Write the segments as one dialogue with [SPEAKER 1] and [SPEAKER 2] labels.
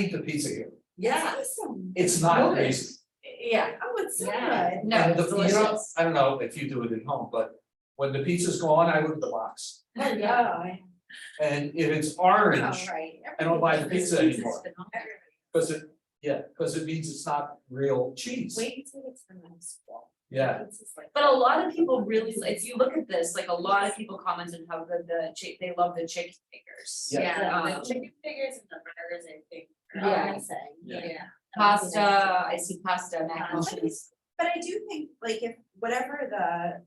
[SPEAKER 1] eat the pizza here,
[SPEAKER 2] Yeah,
[SPEAKER 3] Awesome.
[SPEAKER 1] it's not
[SPEAKER 2] Really?
[SPEAKER 1] crazy.
[SPEAKER 2] yeah,
[SPEAKER 3] Oh, it's so
[SPEAKER 2] Yeah.
[SPEAKER 3] good.
[SPEAKER 2] no,
[SPEAKER 1] And the-
[SPEAKER 2] it's
[SPEAKER 1] you know,
[SPEAKER 2] delicious.
[SPEAKER 1] I don't know if you do it at home, but when the pizza's gone, I look at the box,
[SPEAKER 2] Oh, yeah.
[SPEAKER 3] Yeah.
[SPEAKER 1] and if it's orange,
[SPEAKER 2] Oh,
[SPEAKER 3] Alright.
[SPEAKER 1] I don't buy the pizza
[SPEAKER 3] Everybody's-
[SPEAKER 1] anymore. cause it, yeah, cause it means it's not real cheese,
[SPEAKER 3] Wait until it's the next one.
[SPEAKER 1] yeah.
[SPEAKER 3] It's just like-
[SPEAKER 2] But a lot of people really, if you look at this, like a lot of people commented how good the chick, they love the chicken fingers.
[SPEAKER 1] Yeah.
[SPEAKER 3] Yeah,
[SPEAKER 2] Um,
[SPEAKER 3] the chicken fingers and the burgers, I think. are
[SPEAKER 2] Yeah.
[SPEAKER 3] amazing.
[SPEAKER 1] Yeah.
[SPEAKER 2] Pasta, I see pasta, mac and cheese.
[SPEAKER 4] But I do think, like, if whatever the,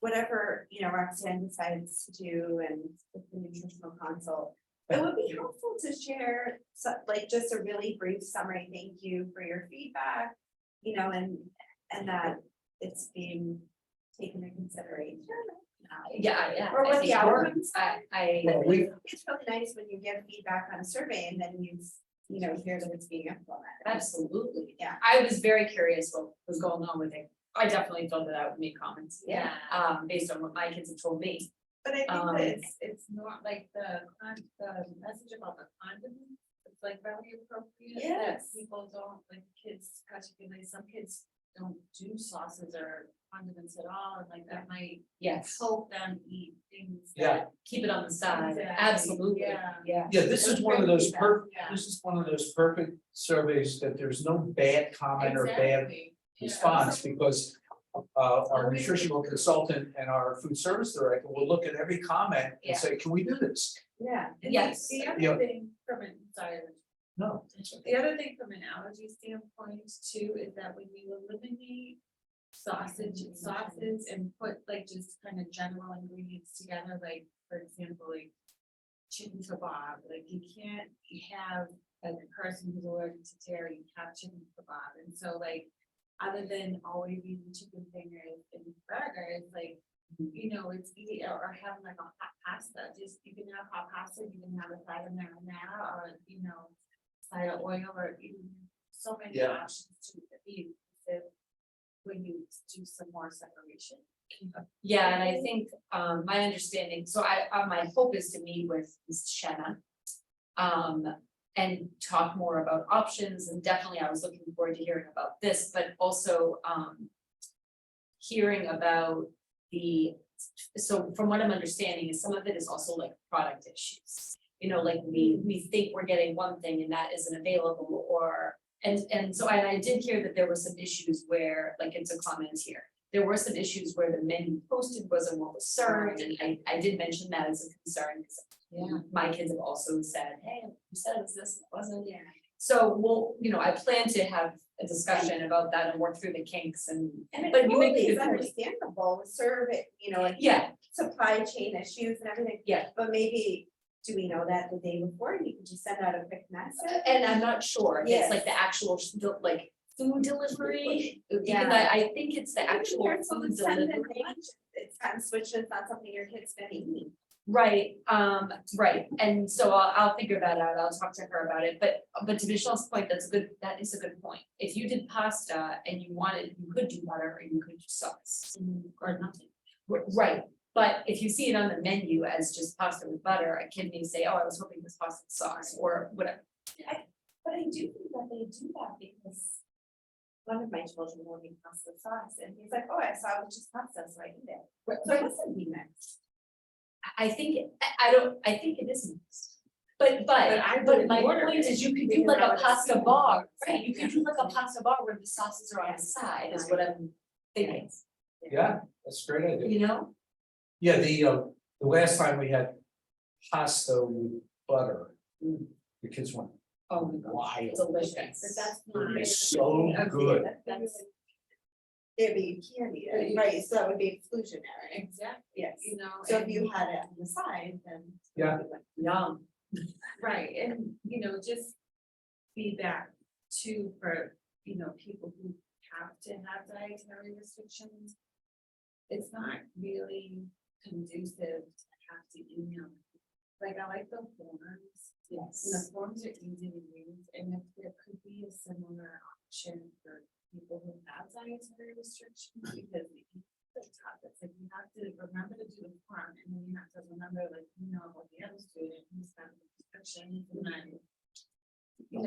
[SPEAKER 4] whatever, you know, Roxanne decides to do and with the nutritional consult. It would be helpful to share, so- like, just a really brief summary, thank you for your feedback, you know, and, and that it's being taken into consideration. Uh,
[SPEAKER 2] Yeah, yeah.
[SPEAKER 4] Or
[SPEAKER 2] I
[SPEAKER 4] what
[SPEAKER 2] think
[SPEAKER 4] the
[SPEAKER 2] it
[SPEAKER 4] hour
[SPEAKER 2] works. I, I,
[SPEAKER 1] Well, we,
[SPEAKER 4] It's really nice when you give feedback on a survey and then you, you know, hear that it's being implemented.
[SPEAKER 2] absolutely.
[SPEAKER 4] Yeah.
[SPEAKER 2] I was very curious what was going on with it. I definitely thought that I would make comments.
[SPEAKER 3] Yeah.
[SPEAKER 2] Um, based on what my kids have told me.
[SPEAKER 4] But I think
[SPEAKER 2] Um,
[SPEAKER 4] that it's,
[SPEAKER 3] It's not like the con, the message about the condiments, it's like very appropriate. that
[SPEAKER 4] Yes.
[SPEAKER 3] People don't, like kids, particularly some kids don't do sauces or condiments at all, and Oh, like that might
[SPEAKER 2] Yes.
[SPEAKER 3] help them eat things
[SPEAKER 1] Yeah.
[SPEAKER 3] that.
[SPEAKER 2] Keep it on the side.
[SPEAKER 3] Exactly,
[SPEAKER 2] Absolutely.
[SPEAKER 3] yeah.
[SPEAKER 2] Yeah.
[SPEAKER 1] yeah, this is one of those per,
[SPEAKER 3] Yeah.
[SPEAKER 1] this is one of those perfect surveys that there's no bad comment or bad
[SPEAKER 3] Exactly, yeah.
[SPEAKER 1] response because uh, our nutritional consultant and our food service director will look at every comment
[SPEAKER 2] Yeah.
[SPEAKER 1] and say, can we do this?
[SPEAKER 4] yeah.
[SPEAKER 3] And the-
[SPEAKER 2] Yes.
[SPEAKER 3] The
[SPEAKER 1] Yeah.
[SPEAKER 3] other thing from an, sorry,
[SPEAKER 1] No.
[SPEAKER 3] the other thing from an allergy standpoint too, is that when you eliminate sausage and sauces and put like just kind of general ingredients together, like, for example, like chicken kebab, like you can't have, as a person who's allergic to dairy, have chicken kebab, and so like, other than always eating chicken fingers and burgers, like, you know, it's easy, or- or having like a hot pasta, just, you can have hot pasta, you can have a side of marinara, or, you know, side of oil, or, you know, so many
[SPEAKER 1] Yeah.
[SPEAKER 3] options to eat, if, when you do some more separation.
[SPEAKER 2] Yeah, and I think um my understanding, so I uh my hope is to meet with Ms. Shanna. Um and talk more about options and definitely I was looking forward to hearing about this, but also um. Hearing about the, so from what I'm understanding is some of it is also like product issues. You know, like we we think we're getting one thing and that isn't available or and and so I I did hear that there were some issues where, like it's a comment here there were some issues where the menu posted wasn't what was served, and I, I did mention that as a concern, because
[SPEAKER 3] Yeah.
[SPEAKER 2] my kids have also said, hey, you said it was this, it wasn't.
[SPEAKER 3] Yeah.
[SPEAKER 2] So, well, you know, I plan to have a discussion about that and work through the kinks and,
[SPEAKER 4] And it
[SPEAKER 2] but you make
[SPEAKER 4] totally
[SPEAKER 2] a good
[SPEAKER 4] is
[SPEAKER 2] point.
[SPEAKER 4] understandable, serve it, you know, like
[SPEAKER 2] Yeah,
[SPEAKER 4] supply chain issues and everything.
[SPEAKER 2] Yeah.
[SPEAKER 4] But maybe, do we know that the day before, and you can just send out a quick message?
[SPEAKER 2] and uh, I'm not sure, if it's
[SPEAKER 4] Yes.
[SPEAKER 2] like the actual, sh- the, like, food delivery, because
[SPEAKER 3] Yeah.
[SPEAKER 2] I, I think it's the actual
[SPEAKER 4] Compared to
[SPEAKER 2] food
[SPEAKER 4] the send
[SPEAKER 2] delivery.
[SPEAKER 4] and lunch, It's kind of switched, it's not something your kids gonna eat.
[SPEAKER 2] Right, um, right, and so I'll, I'll figure that out, I'll talk to her about it, but, but to Michelle's point, that's a good, that is a good point. If you did pasta and you wanted, you could do butter or you could do sauce,
[SPEAKER 3] Or nothing.
[SPEAKER 2] R- right? But if you see it on the menu as just pasta with butter, a kid may say, oh, I was hoping this pasta with sauce or whatever.
[SPEAKER 4] But I do think that they do that because one of my children will be pasta sauce, and he's like, oh, I saw it was just pasta, so I eat it. So it wasn't be mixed.
[SPEAKER 2] I, I think, I, I don't, I think it is, mixed. but, but,
[SPEAKER 3] But I
[SPEAKER 2] but
[SPEAKER 3] wouldn't
[SPEAKER 2] my
[SPEAKER 3] order
[SPEAKER 2] point
[SPEAKER 3] it
[SPEAKER 2] is you could do
[SPEAKER 3] because
[SPEAKER 2] like
[SPEAKER 3] I
[SPEAKER 2] a
[SPEAKER 3] would
[SPEAKER 2] pasta
[SPEAKER 3] assume-
[SPEAKER 2] bar, right,
[SPEAKER 3] Right,
[SPEAKER 2] you could do like a pasta bar where the sauces are on the side is what I'm thinking,
[SPEAKER 1] Yeah, that's a great idea.
[SPEAKER 2] you know?
[SPEAKER 1] Yeah, the, uh, the last time we had pasta with butter,
[SPEAKER 2] Mm.
[SPEAKER 1] the kids went
[SPEAKER 2] Oh my god,
[SPEAKER 1] wild.
[SPEAKER 3] But
[SPEAKER 2] delicious.
[SPEAKER 3] that's
[SPEAKER 1] It
[SPEAKER 3] not.
[SPEAKER 1] was so good.
[SPEAKER 3] That's-
[SPEAKER 4] It'd be candy,
[SPEAKER 3] Right.
[SPEAKER 4] right, so that would be exclusionary,
[SPEAKER 3] Exactly,
[SPEAKER 4] yes.
[SPEAKER 3] you know.
[SPEAKER 4] So if
[SPEAKER 3] and-
[SPEAKER 4] you had it on the side, then.
[SPEAKER 1] Yeah.
[SPEAKER 2] Yum.
[SPEAKER 3] Right, and, you know, just feedback too for, you know, people who have to have dietary restrictions. It's not really conducive to have to email. Like, I like the forms, and
[SPEAKER 2] Yes.
[SPEAKER 3] the forms are easy to use, and if there could be a similar option for people who have dietary restrictions, because